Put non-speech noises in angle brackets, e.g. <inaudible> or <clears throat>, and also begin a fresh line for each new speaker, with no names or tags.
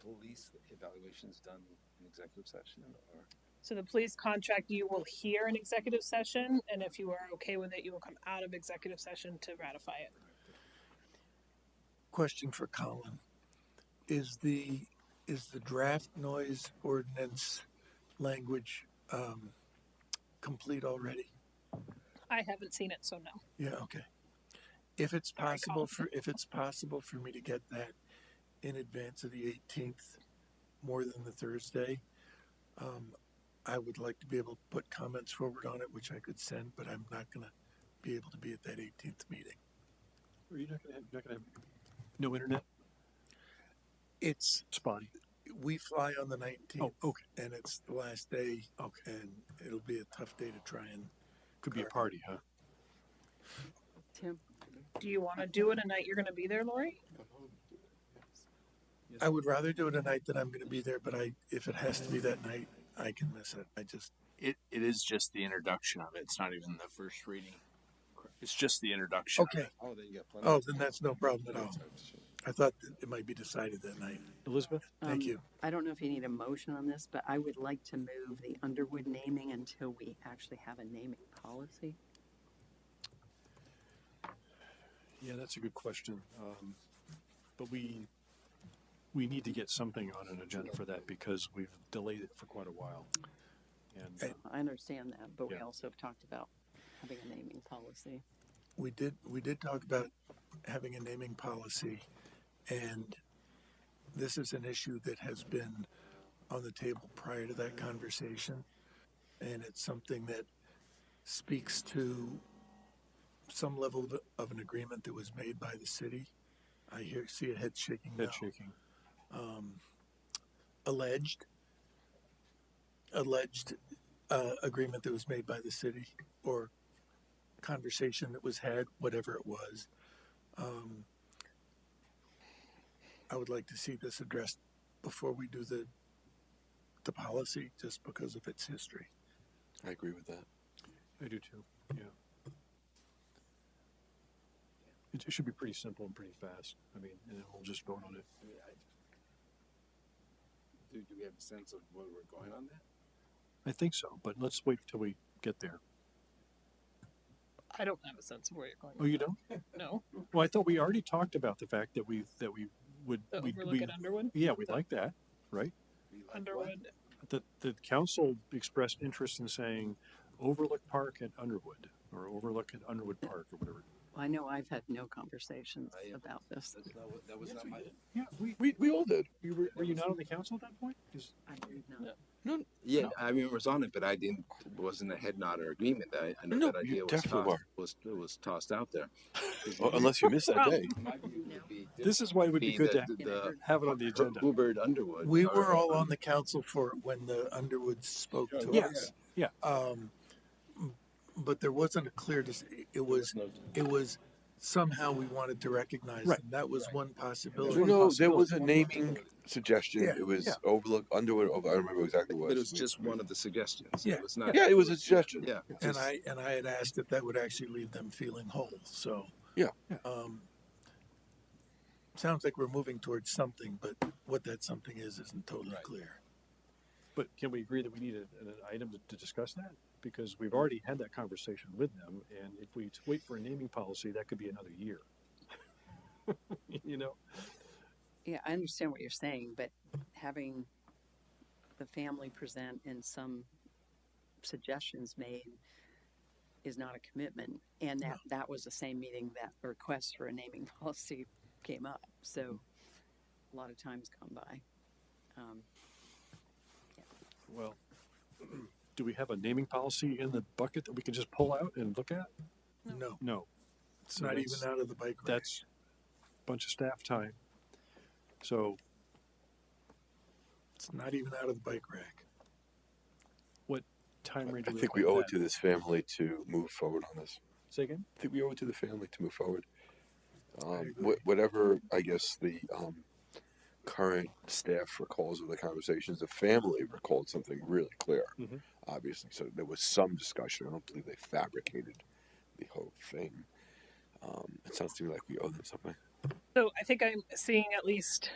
police evaluations done in executive session or?
So the police contract, you will hear an executive session, and if you are okay with it, you will come out of executive session to ratify it.
Question for Colin. Is the, is the draft noise ordinance language, um, complete already?
I haven't seen it, so no.
Yeah, okay. If it's
Sorry,
possible
Colin.
for, if it's possible for me to get that in advance of the eighteenth, more than the Thursday, um, I would like to be able to put comments forward on it, which I could send, but I'm not gonna be able to be at that eighteenth meeting.
Are you not gonna have, you're not gonna have no internet?
It's,
Spotty.
we fly on the nineteenth.
Oh, okay.
And it's the last day.
Okay.
And it'll be a tough day to try and,
Could be a
Correct.
party, huh?
Tim,
Do you want to do it a night you're going to be there, Lori?
I would rather do it a night that I'm gonna be there, but I, if it has to be that night, I can miss it. I just,
It, it is just the introduction of it. It's not even the first reading. It's just the introduction. of
okay.
Oh, then you got plenty.
Oh,
of
then
time.
that's no problem at
Plenty
all.
of time to-
I thought that it might be decided that night.
Elizabeth?
um,
Thank you.
I don't know if you need a motion on this, but I would like to move the Underwood naming until we actually have a naming policy.
Yeah, that's a good question. Um, but we, we need to get something on an agenda for that because we've delayed it for quite a while. And uh,
Okay.
I understand that, but we
Yeah.
also have talked about having a naming policy.
We did, we did talk about having a naming policy and this is an issue that has been on the table prior to that conversation. And it's something that speaks to some level of, of an agreement that was made by the city. I hear, see a head shaking now.
head shaking.
um, alleged alleged uh, agreement that was made by the city or conversation that was had, whatever it was. Um, I would like to see this addressed before we do the the policy, just because of its history.
I agree with that.
I do too, yeah. It, it should be pretty simple and pretty fast. I mean, and then we'll just vote on it.
I mean, I- Do, do we have a sense of where we're going on that?
I think so, but let's wait till we get there.
I don't have a sense of where you're going.
Oh, you don't?
No,
Well, I thought we already talked about the fact that we, that we would,
the
we,
overlook
we,
at Underwood.
yeah, we like that.
We like what?
Underwood.
The, the council expressed interest in saying Overlook Park at Underwood, or Overlook at Underwood Park, or whatever.
I know I've had no conversations
I am-
about this.
That's not what, that was
Yes,
not
we
my,
did.
Yeah, we,
We, we all did.
you were, were you not on the council at that point? 'Cause-
I do not.
No,
Yeah,
No.
I mean, it was on it, but I didn't, wasn't a head nod or agreement. I, I know
No,
that
you
idea was
definitely
tossed, was, it was tossed out there.
Um, <laughs> well,
<laughs>
unless you missed that
Well,
day.
my view would be.
This is why it would be good to
The, the,
have it on the agenda.
Hubert Underwood.
We
or- <laughs>
were all on the council for it when the Underwoods spoke to
Yeah,
us.
yeah.
Um, but there wasn't a clear. Dis- it was. It was somehow we wanted to recognize.
Right.
them. That was one possibility.
Well, no, there was a naming suggestion.
Yeah,
it was
yeah.
Overlook Underwood. Over, I don't remember exactly what.
But it was just one of the suggestions.
Yeah.
It was not.
Yeah, it was a suggestion.
Yeah.
and I and I had asked if that would actually leave them feeling whole. So
Yeah.
Yeah.
Um, sounds like we're moving towards something, but what that something is isn't totally
Right.
clear.
But can we agree that we need a- an item to- to discuss that? Because we've already had that conversation with them, and if we wait for a naming policy, that could be another year. <laughs> You know,
Yeah, I understand what you're saying, but having the family present and some suggestions made is not a commitment. And that, that was the same meeting that the request for a naming <laughs> policy came up. So a lot of time's gone by. Um,
well, <clears throat> do we have a naming policy in the bucket that we can just pull out and look at?
No,
No.
it's not even out of the bike. rack.
That's a bunch of staff time. So
it's not even out of the bike rack.
time range.
I think we owe it to this family to move forward on this.
Say again?
I think we owe it to the family to move forward. Um,
agree.
wh- whatever, I guess, the um, current staff recalls of the conversations, the family recalled something really clear,
Mm-hmm.
Mhm.
obviously. So there was some discussion. I don't believe they fabricated the whole thing. Um, it sounds to me like we owe them something.
So I think I'm seeing at least